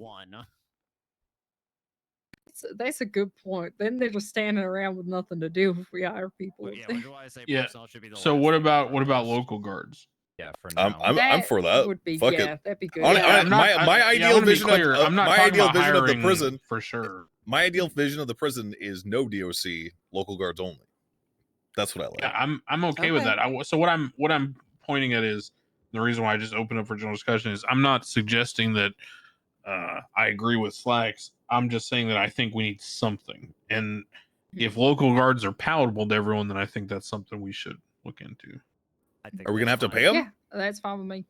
one. That's a, that's a good point. Then they're just standing around with nothing to do if we hire people. But yeah, which is why I say Yeah. personnel should be the So last what thing on about our what about list. local guards? Yeah, for I'm- now. I'm- for that. Would be Fuck it. yeah, that'd be good. Um, Hon- Yeah. hon- I'm my- I- my yeah, I ideal wanna be vision of- clear, of- I'm not my talking ideal about vision of the hiring prison- for sure. My ideal vision of the prison is no DOC, local guards only. That's what I like. Yeah, I'm I'm okay, with Okay. that. I w so what I'm what I'm pointing at is the reason why I just opened up for general discussion is I'm not suggesting that uh, I agree with Slacks. I'm just saying that I think we need something, and if Hmm. local guards are palatable to everyone, then I think that's something we should look into. I think Are we gonna that's have to fine. pay 'em? Yeah, that's fine with me.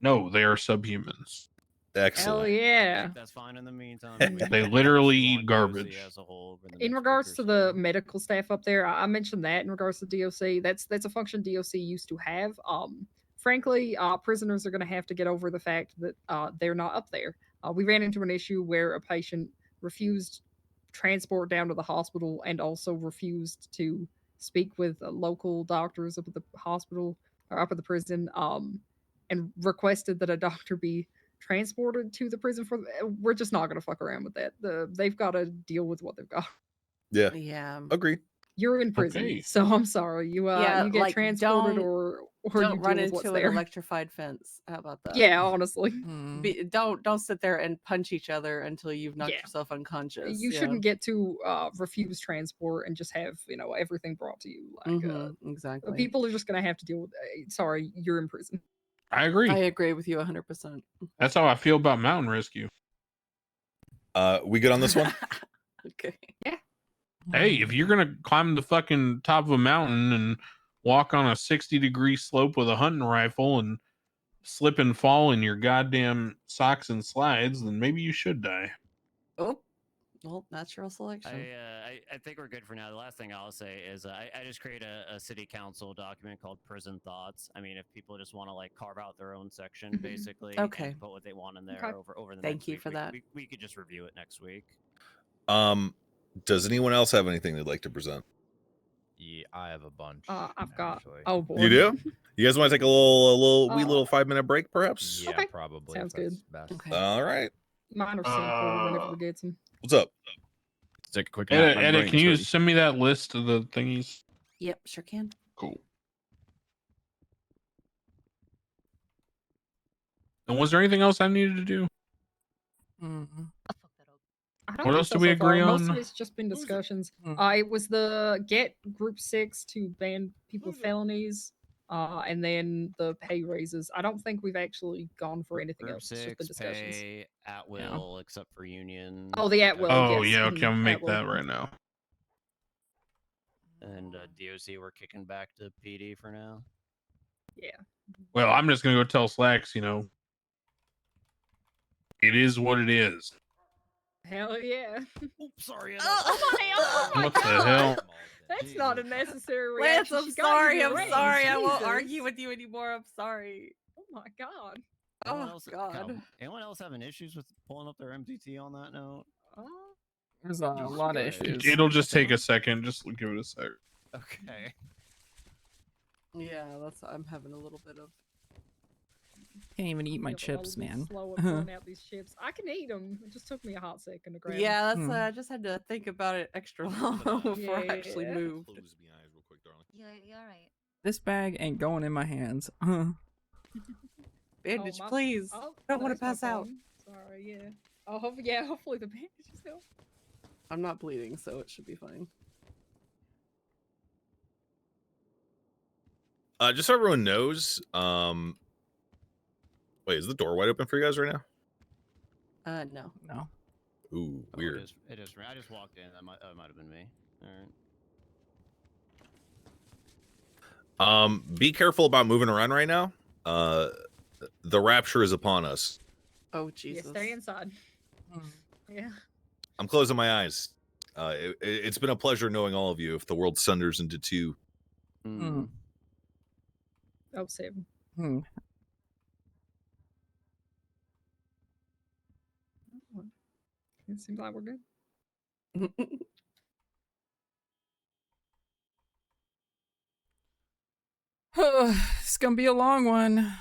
No, they are subhumans. Excellent. Hell I yeah. think That's fine in the meantime. They We can actually literally eat want DOC garbage. as a whole over the next In week regards or to the so. medical staff up there, I I mentioned that in regards to DOC, that's that's a function DOC used to have. Um, frankly, uh, prisoners are going to have to get over the fact that uh, they're not up there. Uh, we ran into an issue where a patient refused transport down to the hospital and also refused to speak with uh, local doctors up at the hospital or up at the prison, um, and requested that a doctor be transported to the prison for uh, we're just not going to fuck around with that the, they've got to deal with what they've got Yeah. Yeah. Agree. you're in prison, Okay. so I'm sorry. You uh, Yeah, you get like, transported don't- or or you Don't run deal with into what's an there. electrified fence. How about that? yeah, honestly, Be, don't don't sit there and punch each other until you've knocked Yeah. yourself unconscious. you yeah. shouldn't get to uh, refuse transport and just have you know everything brought to you. Like uh, Mhm, exactly. people are just gonna have to deal with. Uh, sorry, you're in prison. I agree. I agree with you 100%. that's how I feel about mountain rescue. Uh, we good on this one? okay. Hey, if you're gonna climb the fucking top of a mountain and walk on a sixty degree slope with a hunting rifle and slip and fall in your goddamn socks and slides, then maybe you should die. Oh, well, natural selection. I, uh, I, I think we're good for now. The last thing I'll say is uh, I, I just create a, a city council document called Prison Thoughts. I mean, if people just want to like carve out their own section, Mhm. basically, Okay. and put what they want in there Mm-hmm. Okay. over over the. Thank next you week, for we- that. We, we could just review it next week. Um, does anyone else have anything they'd like to present? Yeah, I have a bunch. Uh, I've got. actually. Oh boy, You do? You guys want to take a little, a little, wee Uh, Oh. little five minute break, perhaps? Yeah, Okay. probably. Sounds if that's good. Best. Okay. All right. Mine are sent forward whenever we get some. What's up? Take a quick Edit, edit can you send me that list of the thingies? Yep, sure can. Cool. And was there anything else I needed to do? I don't What think else so, do we so far. agree Most of on? it's just been Who's it? discussions. Mm. Uh, it was the get group six to ban people with felonies, uh, and then the pay raises. I don't think we've actually gone for anything Group else. just the six discussions. pay at will, except for union. Oh, the at uh, will, Oh, yes, yeah, mhm, okay, I'm gonna that make will. that right now. And uh, DOC, we're kicking back to PD for now. Well, I'm just gonna go tell Slacks, you know. It is what it is. Hell yeah. Oops, sorry. Anna. Oh, oh my What the God. hell? That's not a necessary Lance, reaction. I'm She got sorry. you I'm your sorry. range. I won't Jesus. argue with you anymore. I'm sorry. Oh my god. Anyone Oh, else, God. um, anyone else having issues with pulling up their MDT on that note? Oh, There's a lot of Right. issues. It'll just take a second. Just give it a sec. Okay. Yeah, that's. I'm having a little bit of. Can't even eat my yeah, but I was chips, being man. Slow at pulling out these chips. I can eat them. It just took me a hot second to grab. 'em. Yeah, that's. Hmm. Uh, I just had to think about it extra long before I actually Yeah. moved. You, you all right? This bag ain't going in my hands. Huh. Bandage, my- please. Oh, don't wanna there's my pass out. phone. Sorry. Yeah. Oh, hope, yeah. Hopefully the bandage is still. I'm not bleeding, so it should be fine. Uh, just so everyone knows, um, wait, is the door wide open for you guys right now? Uh, no. No. Ooh, Oh, weird. It is, it is. I just walked in. That might, that might have been me. All right. Um, be careful about moving around right now. Uh, the rapture is upon us. Oh Yeah. Jesus. Stay inside. Yeah. I'm closing my eyes. Uh, it, it- it's been a pleasure knowing all of you. If the world sunders into two, Hmm. Oh, save 'em. Hmm. It seems like we're good. Hmm. it's gonna be a long one.